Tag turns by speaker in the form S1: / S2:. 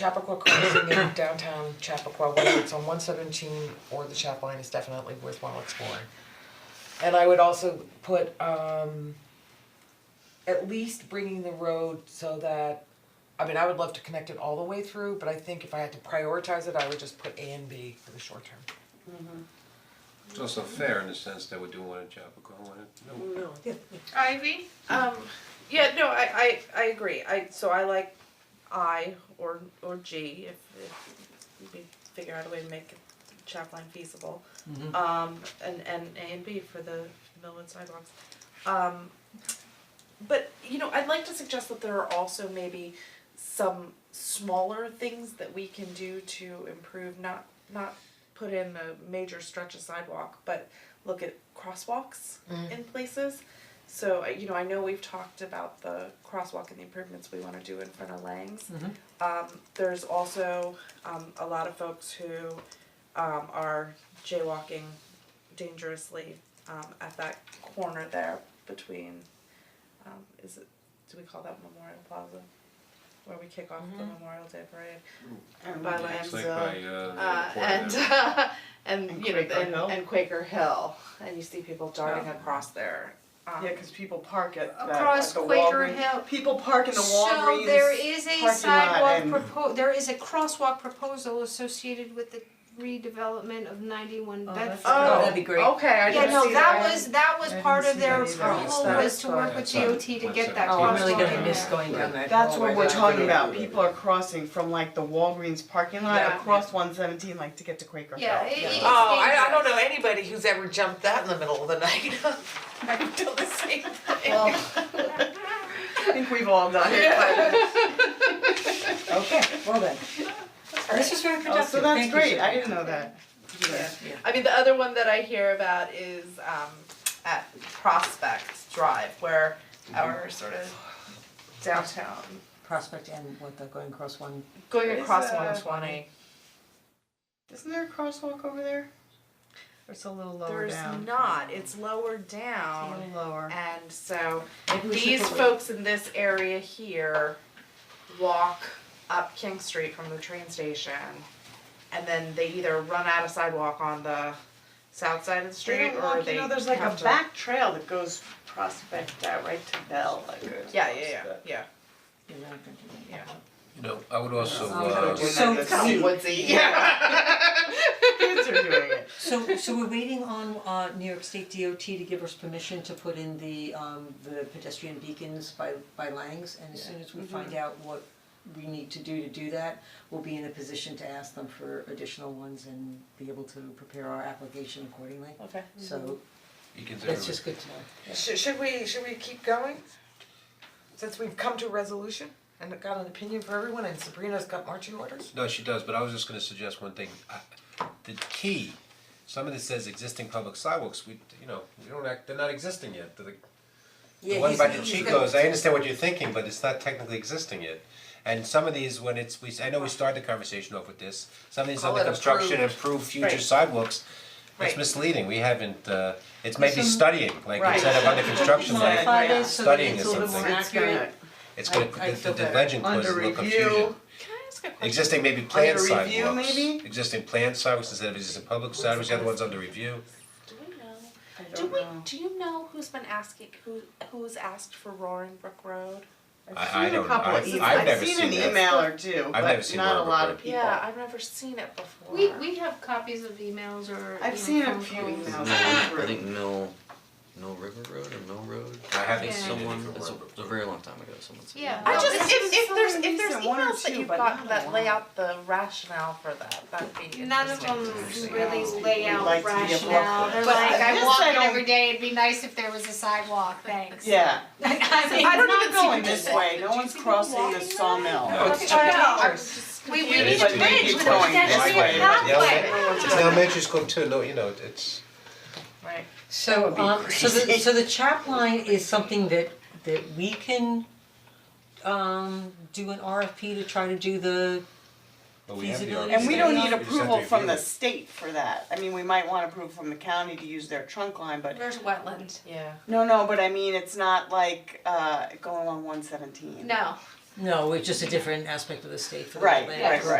S1: Chappaqua Crossing in downtown Chappaqua, whether it's on one seventeen or the chap line is definitely worthwhile exploring. And I would also put um at least bringing the road so that, I mean, I would love to connect it all the way through, but I think if I had to prioritize it, I would just put A and B for the short term.
S2: It's also fair in the sense that we're doing one in Chappaqua, one in, no,
S3: Ivy? Um, yeah, no, I, I, I agree. I, so I like I or, or G if, if we figure out a way to make Chapline feasible. Um, and, and A and B for the Millwood sidewalks. Um, but, you know, I'd like to suggest that there are also maybe some smaller things that we can do to improve, not, not put in a major stretch of sidewalk, but look at crosswalks in places. So, uh, you know, I know we've talked about the crosswalk and the improvements we wanna do in front of Langs.
S4: Mm-hmm.
S3: Um, there's also, um, a lot of folks who, um, are jaywalking dangerously, um, at that corner there between, um, is it, do we call that Memorial Plaza? Where we kick off the Memorial Day Parade by Langs.
S2: it's like by, uh, the
S3: Uh,
S2: airport
S3: and
S2: there.
S3: uh, and,
S5: And
S3: you know
S5: Quaker
S3: and,
S5: Hill.
S3: and Quaker Hill, and you see people darting
S5: Yeah.
S3: across there. Um,
S5: Yeah, cause people park at that,
S6: Across
S5: like the
S6: Quaker
S5: Walgreens-
S6: Hill.
S5: People park in the
S6: So
S5: Walgreens.
S6: there is
S5: parking
S6: a
S5: lot
S6: sidewalk
S5: and-
S6: propo- there is a crosswalk proposal associated with the redevelopment of ninety-one Bedford.
S3: Oh,
S4: that'd be great.
S3: Okay, I
S6: Yeah,
S3: didn't
S6: no,
S3: see
S6: that was, that was
S5: I
S6: part
S5: didn't
S6: of
S5: see
S6: their
S5: that either.
S6: approval
S3: That's
S6: was to work with
S2: fine.
S6: DOT to get that
S2: Oh,
S4: I'm
S6: crosswalk
S4: really
S6: in
S4: gonna
S6: there.
S4: miss going down that
S5: That's what
S4: hallway.
S5: we're
S4: That's
S5: talking
S4: really
S5: about,
S4: good.
S5: people are crossing from like the Walgreens parking lot
S3: Yeah.
S5: across one seventeen, like to get to Quaker Hill.
S6: Yeah, it- it's
S4: Oh, I, I don't
S6: dangerous.
S4: know anybody who's ever jumped that in the middle of the night.
S3: I've done the same thing.
S5: I think we've all done it.
S4: Okay, well then. This was very
S5: Oh,
S4: productive,
S5: so that's great, I didn't know that.
S3: Yeah. I mean, the other one that I hear about is um, at Prospect Drive, where
S5: Mm-hmm.
S3: our sort of downtown
S4: Prospect and what, the going across one,
S3: going
S5: Is,
S3: across
S5: uh,
S3: 120.
S5: Isn't there a crosswalk over there? Or It's a little lower
S3: There's
S5: down,
S3: not. It's lower
S5: a
S3: down,
S5: little lower.
S3: and so
S4: Maybe we should
S3: these
S4: put-
S3: folks in this area here walk up King Street from the train station, and then they either run out of sidewalk on the south side of the
S5: They
S3: street,
S5: don't
S3: or
S5: walk,
S3: they
S5: you know, there's like a
S3: have to-
S5: back trail that goes Prospect out right to Bell, like.
S3: Yeah, yeah, yeah, yeah.
S4: you're not gonna do that.
S3: Yeah.
S2: You know, I would also,
S4: Sounds like
S2: uh,
S4: a So
S5: it's
S4: kinda
S5: woodsy. Yeah. Kids are doing it.
S4: So, so we're waiting on, uh, New York State DOT to give us permission to put in the, um, the pedestrian beacons by, by Langs, and as soon as we find out what we need to do to do that, we'll be in a position to ask them for additional ones and be able to prepare our application accordingly.
S3: Okay.
S4: So,
S2: Mm-hmm. beacons everywhere.
S4: that's just good to know.
S1: Should should we, should we keep going? Since we've come to a resolution and got an opinion for everyone and Sabrina's got marching orders?
S2: No, she does, but I was just gonna suggest one thing, I, the key, some of this says existing public sidewalks, we, you know, we don't act, they're not existing yet, the The one by the Chicos, I understand what you're thinking, but it's not technically existing yet. And some of these, when it's, we, I know we started the conversation off with this, some of these
S1: Call
S2: under
S1: it
S2: construction, improved future
S3: Right.
S2: sidewalks, it's
S3: Right.
S2: misleading, we haven't, uh, it's maybe studying, like instead of under construction, like,
S4: Modify it so that it's a little more
S2: Studying
S5: It's gonna-
S4: accurate.
S2: it's gonna,
S4: I- I
S2: the, the- the
S4: feel
S2: legend
S5: better.
S2: causes a little
S5: Under
S2: confusion.
S5: review.
S3: Can I ask a question?
S2: Existing maybe planned
S5: Under review,
S2: sidewalks,
S5: maybe?
S2: existing planned sidewalks instead of existing public sidewalks, the other one's under review.
S3: Do we know?
S5: I
S3: Do
S5: don't
S3: we?
S5: know.
S3: Do you know who's been asking who who's asked for Roaring Brook Road?
S2: I- I
S5: seen a
S2: don't know.
S5: couple of
S2: I've-
S5: emails.
S2: I've never
S5: I've
S2: seen
S5: seen
S2: that.
S5: an email or two,
S2: I've never
S5: but
S2: seen
S5: not a
S2: Robert
S5: lot
S2: Burke.
S5: of people.
S3: Yeah, I've never seen it before.
S6: We, we have copies of emails or,
S5: I've
S6: you
S5: seen
S6: know,
S5: a
S6: phone
S5: few emails.
S6: calls.
S7: I think Mill, Mill River Road or Mill Road?
S2: I haven't
S6: Yeah.
S2: seen it
S7: Someone,
S2: for
S7: it's a,
S2: Robert.
S7: it's a very long time ago, someone said.
S6: Yeah.
S3: I
S6: No,
S3: just
S6: it's-
S3: if, if
S5: so
S3: there's
S5: many
S3: if there's
S5: recent, one or
S3: emails that
S5: two,
S3: you've
S5: but
S3: gotten
S5: not
S3: that
S5: a
S3: lay
S5: lot.
S3: out the rationale for that, that'd be interesting.
S6: None of them really lay out
S5: Like to be a block
S6: rationale, they're
S5: But
S6: like, I
S5: this
S6: walk
S5: I
S6: in
S5: don't-
S6: every day, it'd be nice if there was a sidewalk, thanks.
S5: Yeah,
S6: I mean,
S5: I don't even going this way, no one's crossing the sawmill.
S2: No.
S5: It's
S6: No,
S5: too
S6: I
S5: dangerous.
S6: was just we, we
S2: It
S6: need
S2: is
S6: a
S2: too
S6: bridge
S2: dangerous.
S6: with a
S2: Going
S5: this way.
S6: pedestrian pathway.
S2: It's an elementary school too, no, you know, it's.
S3: Right.
S4: So, um, so the, so the chap line is something that, that we can, um, do an RFP to try to do the,
S2: But we have the
S4: Feasibility
S2: RFP.
S5: And we don't need
S2: We just have to
S5: approval from
S2: review
S5: the
S2: it.
S5: state for that, I mean, we might want approval from the county to use their trunk line, but,
S6: There's wetland.
S3: Yeah.
S5: no, no, but I mean, it's not like, uh, going along one seventeen.
S6: No,
S4: No, it's just a different aspect of the state for the
S5: Right,
S4: wetlands.
S5: right, right.